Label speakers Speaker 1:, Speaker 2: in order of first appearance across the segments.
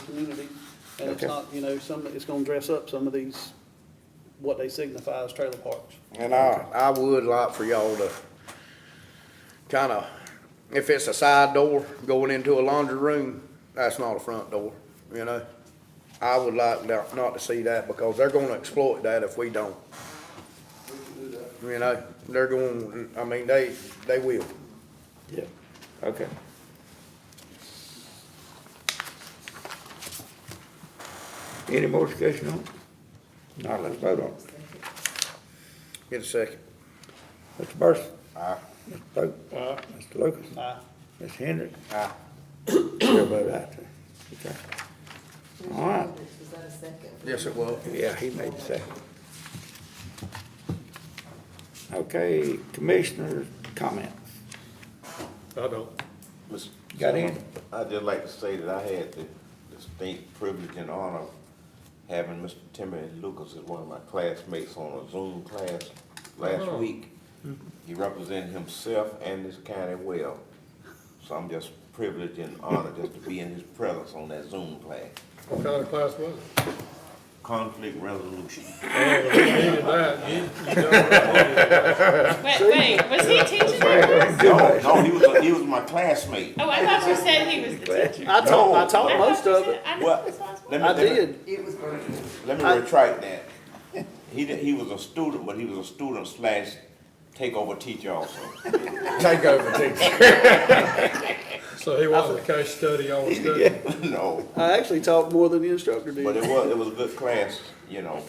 Speaker 1: community. And it's
Speaker 2: Okay.
Speaker 1: not, you know, some, it's gonna dress up some of these, what they signify as trailer parks.
Speaker 2: And I, I would like for y'all to kinda, if it's a side door going into a laundry room, that's not a front door, you know? I would like not, not to see that because they're gonna exploit that if we don't. You know, they're going, I mean, they, they will.
Speaker 3: Yeah, okay. Any more discussion on it? Now, let's vote on it.
Speaker 2: Get a second.
Speaker 3: Mr. Burson? Aye. Mr. Pope? Aye. Mr. Lucas?
Speaker 1: Aye.
Speaker 3: Ms. Hendrick?
Speaker 2: Aye.
Speaker 3: Chair vote aye, too. Okay. All right.
Speaker 4: Was that a second?
Speaker 2: Yes, it will.
Speaker 3: Yeah, he made the second. Okay, commissioners' comments.
Speaker 5: I don't.
Speaker 6: Mr.
Speaker 3: You got any?
Speaker 6: I'd just like to say that I had the distinct privilege and honor of having Mr. Timothy Lucas as one of my classmates on a Zoom class last week. He represented himself and this county well, so I'm just privileged and honored just to be in his presence on that Zoom class.
Speaker 5: What kind of class was it?
Speaker 6: Conflict resolution.
Speaker 5: Oh, you needed that. You- you don't-
Speaker 7: Wait, wait, was he teaching that class?
Speaker 6: No, no, he was, he was my classmate.
Speaker 7: Oh, I thought you said he was the teacher.
Speaker 1: I taught, I
Speaker 7: I
Speaker 1: taught
Speaker 7: thought
Speaker 1: most
Speaker 7: you
Speaker 1: of
Speaker 7: said-
Speaker 1: it.
Speaker 7: I
Speaker 6: Well,
Speaker 7: thought this was
Speaker 6: let
Speaker 7: one.
Speaker 6: me-
Speaker 1: I
Speaker 6: let me-
Speaker 1: did.
Speaker 4: It was Bernie.
Speaker 6: Let me
Speaker 1: I-
Speaker 6: retract that. He, di- he was a student, but he was a student slash takeover teacher also.
Speaker 2: Take over, teacher.
Speaker 5: So he wasn't a case study on study.
Speaker 6: No,
Speaker 1: I actually taught more than the instructor
Speaker 6: but it
Speaker 1: did.
Speaker 6: was, it was a good class, you know.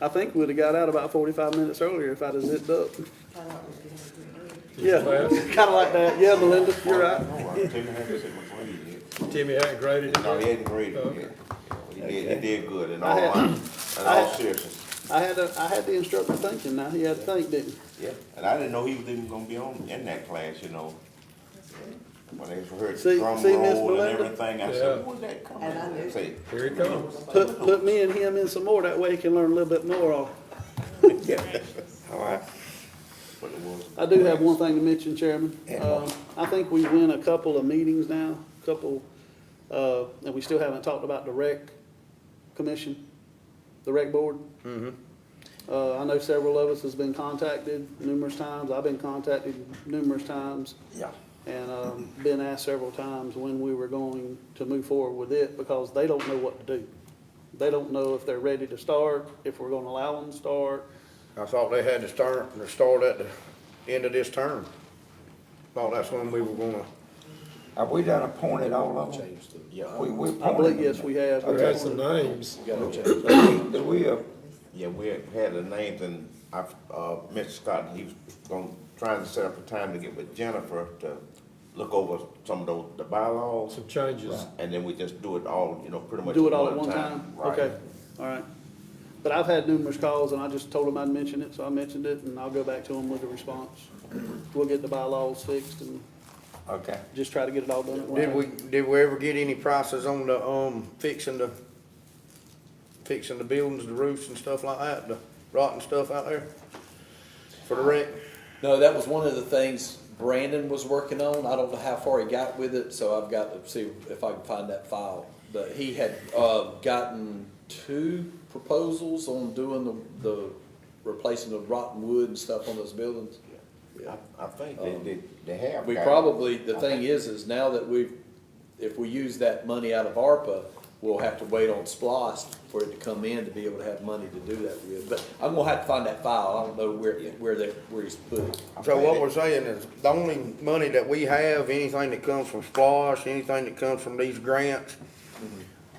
Speaker 1: I think we'd have got out about forty-five minutes earlier if I'd have zipped up.
Speaker 4: I thought it was Bernie.
Speaker 1: Yeah, kinda like that. Yeah, Melinda, you're right.
Speaker 6: No, Timmy hadn't said before he did.
Speaker 5: Timmy hadn't graded it.
Speaker 6: No, he hadn't graded
Speaker 5: Okay.
Speaker 6: yet. He did, he did good in
Speaker 1: I
Speaker 6: all,
Speaker 1: had-
Speaker 6: honesty, in
Speaker 1: I
Speaker 6: all
Speaker 1: had-
Speaker 6: seriousness.
Speaker 1: I had, a- I had the instructor thinking now. He had to think, didn't he?
Speaker 6: Yeah, and I didn't know he was even gonna be on, in that class, you know. When they heard
Speaker 1: See-
Speaker 6: drum
Speaker 1: see, Miss
Speaker 6: roll and
Speaker 1: Melinda?
Speaker 6: everything,
Speaker 5: Yeah.
Speaker 6: I said, where's that coming?
Speaker 4: And I knew.
Speaker 6: Say,
Speaker 5: Here he comes.
Speaker 1: Put, put me and him in some more. That way he can learn a little bit more on.
Speaker 3: All right.
Speaker 6: But it was.
Speaker 1: I do have one thing to mention, Chairman. Um, I think we win a couple of meetings now, couple, uh, and we still haven't talked about the rec commission, the rec board. Uh, I know several of us has been contacted numerous times. I've been contacted numerous times.
Speaker 6: Yeah.
Speaker 1: And, um, been asked several times when we were going to move forward with it because they don't know what to do. They don't know if they're ready to start, if we're gonna allow them to start.
Speaker 2: I thought they had to start, to start at the end of this term. Thought that's when we were gonna.
Speaker 3: Have we done appointed all of them?
Speaker 8: Yeah,
Speaker 3: We, we appointed
Speaker 1: I believe,
Speaker 3: them.
Speaker 1: yes, we have.
Speaker 5: We got some names.
Speaker 8: we gotta change.
Speaker 3: Do we- do we, uh,
Speaker 6: Yeah, we had had the names and I've, uh, Mr. Scott, he was gonna, trying to set up a time to get with Jennifer to look over some of those, the bylaws.
Speaker 5: Some changes.
Speaker 6: And then we just do it all, you know, pretty much.
Speaker 1: Do it all at one time?
Speaker 6: Right.
Speaker 1: Okay, all right. But I've had numerous calls and I just told them I'd mention it, so I mentioned it and I'll go back to them with a response. We'll get the bylaws fixed and
Speaker 3: okay.
Speaker 1: just try to get it all done at once.
Speaker 2: Did we, did we ever get any prices on the, um, fixing the, fixing the buildings, the roofs and stuff like that, the rotten stuff out there? For the rent?
Speaker 8: No, that was one of the things Brandon was working on. I don't know how far he got with it, so I've got to see if I can find that file. But he had, uh, gotten two proposals on doing the, the, replacing the rotten wood and stuff on those buildings.
Speaker 6: I, I think they, they, they have.
Speaker 8: Uh, We
Speaker 6: got it.
Speaker 8: probably, the thing is, is now that we've, if we use that money out of ARPA, we'll have to wait on SPOS for it to come in to be able to have money to do that with. But I'm gonna have to find that file. I don't know where, where they, where he's put it.
Speaker 6: I
Speaker 2: So
Speaker 6: think
Speaker 2: what
Speaker 6: they-
Speaker 2: we're saying is, the only money that we have, anything that comes from SPOS, anything that comes from these grants,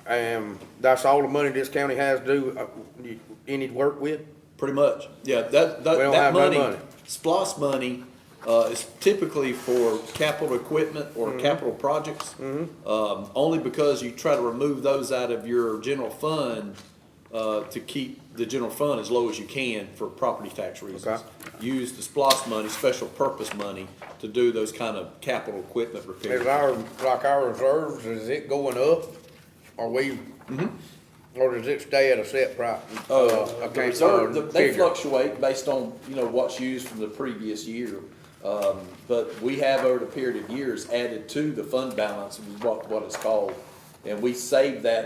Speaker 2: and that's all the money this county has to do, uh, you- any work with?
Speaker 8: Pretty much, yeah, that, that,
Speaker 2: We don't
Speaker 8: that
Speaker 2: have no
Speaker 8: money,
Speaker 2: money.
Speaker 8: SPOS money, uh, is typically for capital equipment
Speaker 2: Mm-hmm.
Speaker 8: or capital projects. Um, only because you try to remove those out of your general fund, uh, to keep the general fund as low as you can for property tax
Speaker 2: Okay.
Speaker 8: reasons. Use the SPOS money, special purpose money, to do those kind of capital equipment repairs.
Speaker 2: Is our, like our reserves, is it going up? Are we, or does it stay at a set price?
Speaker 8: Mm-hmm. Uh, the reserve, the- they fluctuate based on, you know, what's used from the previous year. Um, but we have over the period of years added to the fund balance, is what, what it's called. And we save that